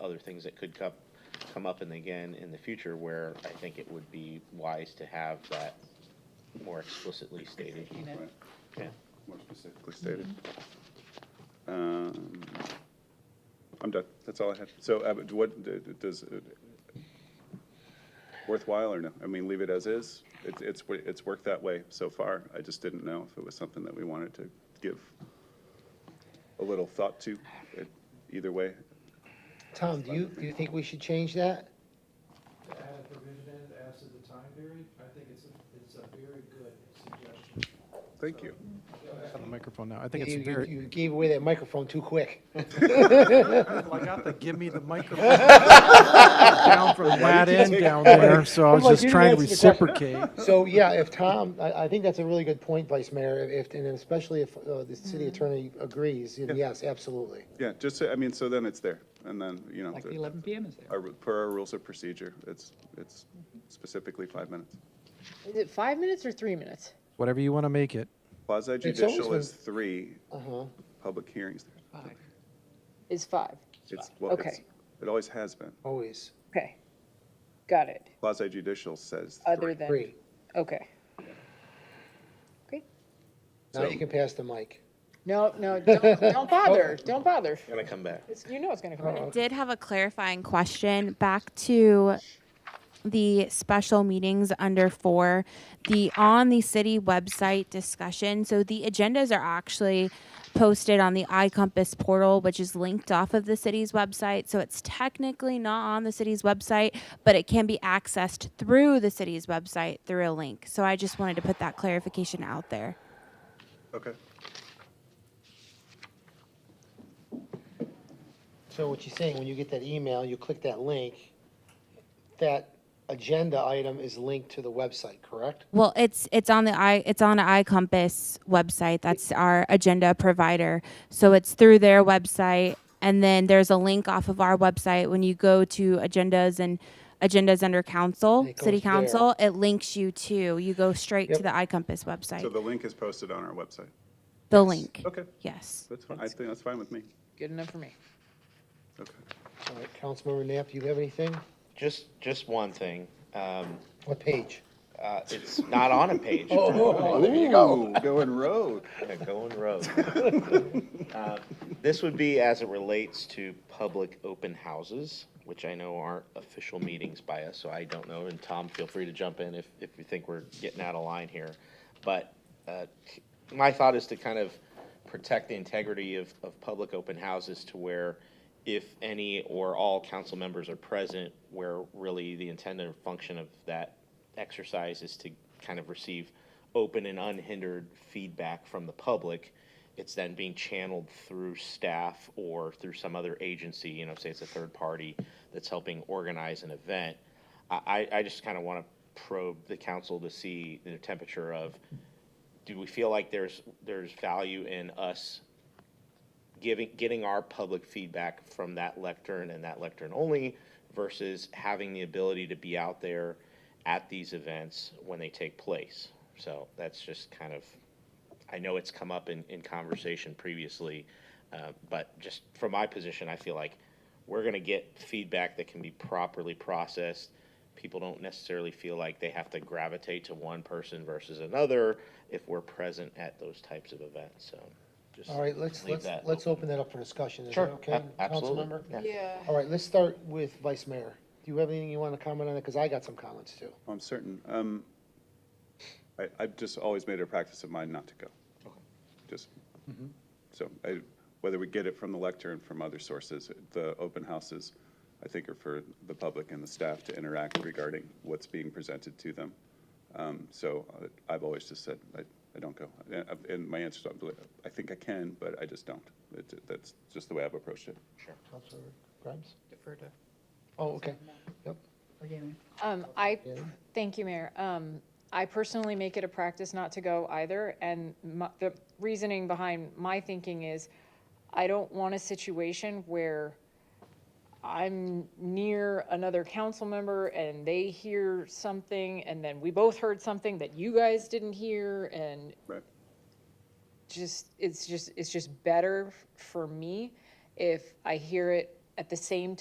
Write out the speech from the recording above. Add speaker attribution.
Speaker 1: other things that could come, come up and again in the future where I think it would be wise to have that more explicitly stated.
Speaker 2: Right,
Speaker 1: Yeah.
Speaker 2: more specifically stated. Um, I'm done, that's all I had. So uh, but what, d- d- does, uh, worthwhile or no? I mean, leave it as is? It's, it's, wo- it's worked that way so far. I just didn't know if it was something that we wanted to give a little thought to, uh, either way.
Speaker 3: Tom, do you, do you think we should change that?
Speaker 4: to add a provision in as to the time period, I think it's, a it's a very good suggestion.
Speaker 2: Thank you.
Speaker 5: on the microphone now. I think
Speaker 3: You,
Speaker 5: it's
Speaker 3: you-
Speaker 5: very,
Speaker 3: you gave away that microphone too quick.
Speaker 5: I got the give me the microphone down from that end down there, so I was
Speaker 3: Like,
Speaker 5: just
Speaker 3: you didn't
Speaker 5: trying to
Speaker 3: answer the question.
Speaker 5: reciprocate.
Speaker 3: So, yeah, if Tom, I, I think that's a really good point, Vice Mayor, if, and especially if uh, the city attorney agrees, then yes, absolutely.
Speaker 2: Yeah, just, so- I mean, so then it's there, and then, you know,
Speaker 6: Like the
Speaker 2: the-
Speaker 6: 11 PM is there.
Speaker 2: our, per our rules of procedure, it's, it's specifically five minutes.
Speaker 7: Is it five minutes or three minutes?
Speaker 5: Whatever you want to make it.
Speaker 2: Quasi
Speaker 3: always
Speaker 2: judicial
Speaker 3: been-
Speaker 2: is three,
Speaker 3: Uh-huh.
Speaker 2: public hearings.
Speaker 6: Five.
Speaker 7: Is five.
Speaker 2: It's, well, it's,
Speaker 7: Okay.
Speaker 2: it always has been.
Speaker 3: Always.
Speaker 7: Okay. Got it.
Speaker 2: Quasi judicial says
Speaker 7: Other
Speaker 2: three.
Speaker 7: than,
Speaker 3: Free.
Speaker 7: okay. Okay.
Speaker 3: Now you can pass the mic.
Speaker 7: No, no, don't, don't bother. Don't bother.
Speaker 1: Gonna come back.
Speaker 7: It's- You know it's gonna come
Speaker 3: Uh-oh.
Speaker 7: out.
Speaker 8: did have a clarifying question back to the special meetings under four, the on the city website discussion. So the agendas are actually posted on the iCompass portal, which is linked off of the city's website. So it's technically not on the city's website, but it can be accessed through the city's website through a link. So I just wanted to put that clarification out there.
Speaker 2: Okay.
Speaker 3: So what you're saying, when you get that email, you click that link, that agenda item is linked to the website, correct?
Speaker 8: Well, it's it's on the i it's on iCompass website. That's our agenda provider. So it's through their website, and then there's a link off of our website. When you go to agendas and agendas under council,
Speaker 3: It goes
Speaker 8: city
Speaker 3: there.
Speaker 8: council, it links you to. You go straight to the iCompass website.
Speaker 2: So
Speaker 8: the
Speaker 2: the link is posted on our website.
Speaker 8: link.
Speaker 2: Okay,
Speaker 8: Yes.
Speaker 2: that's fine. I think that's fine with me.
Speaker 7: Good enough for me.
Speaker 2: Okay.
Speaker 3: All right, Councilmember Knapp, do you have anything?
Speaker 1: Just, just one thing, um,
Speaker 3: What page?
Speaker 1: uh, it's not on a page.
Speaker 2: Oh, there you go. Going road.
Speaker 1: Yeah, going rogue. Uh, This would be as it relates to public open houses, which I know aren't official meetings by us, so I don't know. And Tom, feel free to jump in if, if you think we're getting out of line here. But uh, c- my thought is to kind of protect the integrity of, of public open houses to where if any or all council members are present, where really the intended function of that exercise is to kind of receive open and unhindered feedback from the public. It's then being channeled through staff or through some other agency, you know, say it's a third party that's helping organize an event. I, I I just kind of want to probe the council to see the temperature of, do we feel like there's, there's value in us giving, getting our public feedback from that lectern and that lectern only versus having the ability to be out there at these events when they take place. So that's just kind of, I know it's come up in, in conversation previously, uh, but just from my position, I feel like we're gonna get feedback that can be properly processed. People don't necessarily feel like they have to gravitate to one person versus another if we're present at those types of events, so. just
Speaker 3: All right, let's,
Speaker 1: leave
Speaker 3: let's,
Speaker 1: that
Speaker 3: let's
Speaker 1: open.
Speaker 3: open that up for discussion. Is that
Speaker 1: Sure,
Speaker 3: okay,
Speaker 1: a- absolutely.
Speaker 3: Councilmember?
Speaker 1: yeah.
Speaker 7: Yeah.
Speaker 3: All right, let's start with Vice Mayor. Do you have anything you want to comment on it? Because I got some comments too.
Speaker 2: I'm certain. Um, I, I've just always made it a practice of mine not to go. Just, so I, whether we get it from the lectern, from other sources, the open houses, I think are for the public and the staff to interact regarding what's being presented to them. Um, so uh, I've always just said, I, I don't go. And- And my answer is, I think I can, but I just don't. It- That's just the way I've approached it.
Speaker 3: Councilmember Grimes?
Speaker 6: Defer to
Speaker 3: Oh, okay. Yep.
Speaker 6: Morgana.
Speaker 4: Um, I,
Speaker 3: Yeah.
Speaker 4: thank you, Mayor. Um, I personally make it a practice not to go either, and my, the reasoning behind my thinking is, I don't want a situation where I'm near another council member and they hear something, and then we both heard something that you guys didn't hear, and
Speaker 2: Right.
Speaker 4: just, it's just, it's just better for me if I hear it at the same time.